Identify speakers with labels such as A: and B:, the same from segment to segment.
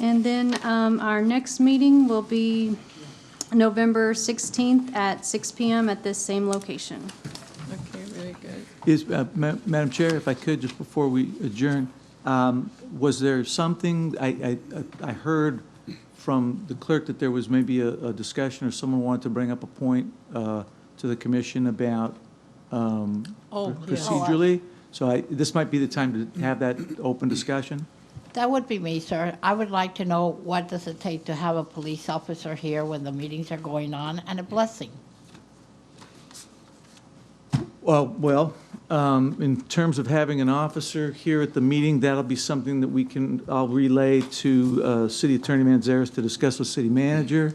A: And then um, our next meeting will be November 16th at six PM at this same location.
B: Okay, very good.
C: Is, uh, Ma- Madam Chair, if I could, just before we adjourn, um, was there something, I, I, I heard from the clerk that there was maybe a, a discussion or someone wanted to bring up a point uh, to the commission about um,
B: Oh, yes.
C: procedurally? So I, this might be the time to have that open discussion?
D: That would be me, sir. I would like to know what does it take to have a police officer here when the meetings are going on and a blessing?
C: Well, well, um, in terms of having an officer here at the meeting, that'll be something that we can, I'll relay to uh, City Attorney Manzares to discuss with City Manager.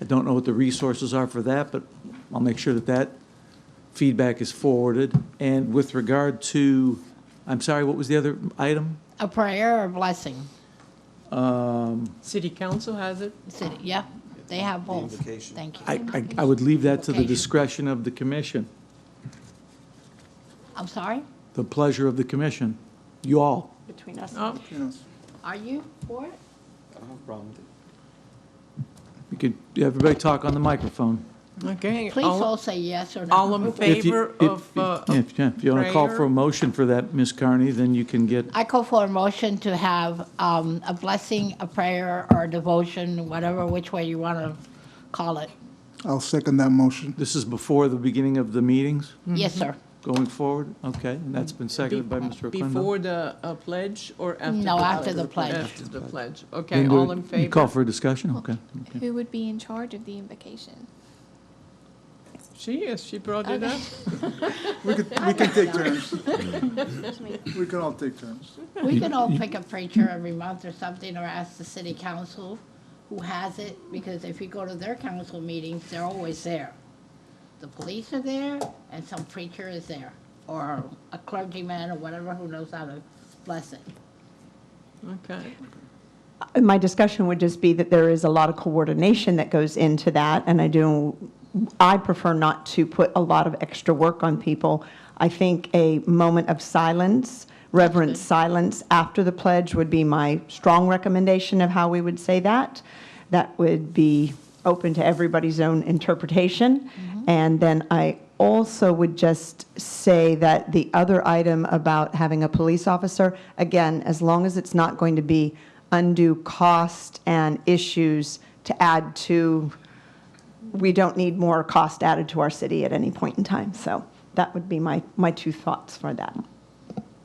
C: I don't know what the resources are for that, but I'll make sure that that feedback is forwarded. And with regard to, I'm sorry, what was the other item?
D: A prayer or a blessing?
B: City council has it?
D: City, yeah, they have both. Thank
C: I,
D: you.
C: I- I would leave that to the discretion of the commission,
D: I'm sorry?
C: the pleasure of the commission, you all.
E: between us.
B: Oh,
D: Are you for it?
C: You could, everybody talk on the microphone.
B: okay.
D: Please
B: All-
D: all say yes or no.
B: All
C: If
B: in
C: you-
B: favor
C: if-
B: of, uh,
C: yeah, If yeah, if you want to call for
B: prayer?
C: a motion for that, Ms. Carney, then you can get,
D: I call for a motion to have um, a blessing, a prayer, or devotion, whatever, which way you want to call it.
F: I'll second that motion.
C: this is before the beginning of the meetings
D: Yes,
B: Mm-hmm.
D: sir.
C: going forward? Okay, and that's been seconded by Mr. Oquendo.
B: Before the uh, pledge or after?
D: No,
B: the
D: after the pledge.
B: After the pledge. Okay,
C: Then do
B: all
C: it-
B: in
C: You call
B: favor?
C: for a discussion? Okay. okay.
G: Who would be in charge of the invocation?
B: She is, she brought it up.
F: We can, we can take turns. We can all take turns.
D: We can all pick a preacher every month or something, or ask the city council who has it, because if you go to their council meetings, they're always there. The police are there, and some preacher is there, or a clergyman or whatever who knows how to bless it.
B: Okay.
E: My discussion would just be that there is a lot of coordination that goes into that, and I do, I prefer not to put a lot of extra work on people. I think a moment of silence, reverent silence after the pledge would be my strong recommendation of how we would say that. That would be open to everybody's own interpretation. And then I also would just say that the other item about having a police officer, again, as long as it's not going to be undue cost and issues to add to, we don't need more cost added to our city at any point in time. So that would be my, my two thoughts for that.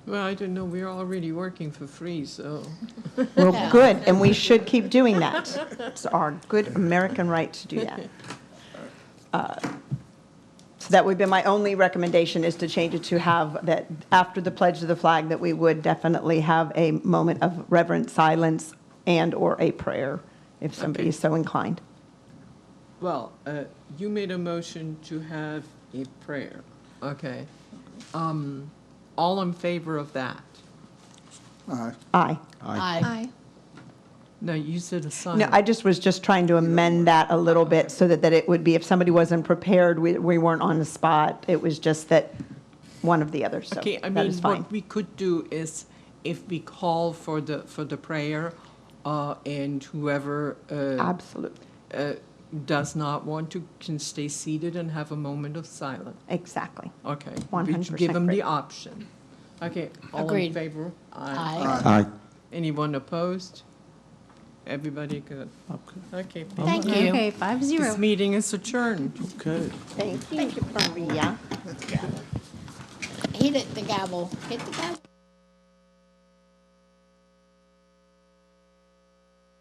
B: Well, I don't know, we're already working for free, so.
D: Yeah.
E: Well, good, and we should keep doing that. It's our good American right to do that. Uh, So that would be my only recommendation, is to change it to have that, after the pledge of the flag, that we would definitely have a moment of reverent silence and/or a prayer, if somebody
B: Okay.
E: is so inclined.
B: Well, uh, you made a motion to have a prayer, okay? Um, All in favor of that?
F: Aye.
E: Aye.
D: I
G: Aye.
B: No, you said a sign.
E: No, I just was just trying to amend that a little bit, so that, that it would be, if somebody wasn't prepared, we, we weren't on the spot. It was just that, one of the others, so
B: Okay, I
E: that
B: mean,
E: is fine.
B: what we could do is if we call for the, for the prayer, uh, and whoever, uh,
E: Absolutely.
B: uh, does not want to can stay seated and have a moment of silence.
E: Exactly.
B: Okay. We should
E: 100%
B: Give them the
E: agree.
B: option. Okay, all in
D: Agreed.
B: favor?
D: Aye.
C: Aye.
B: Anyone opposed? Everybody good?
C: Okay.
B: Okay. thank
D: Thank
B: you.
D: you.
A: Okay, five zero.
B: This meeting is adjourned.
C: Okay.
E: Thank you, Maria.
D: He did the gavel. Hit the gavel.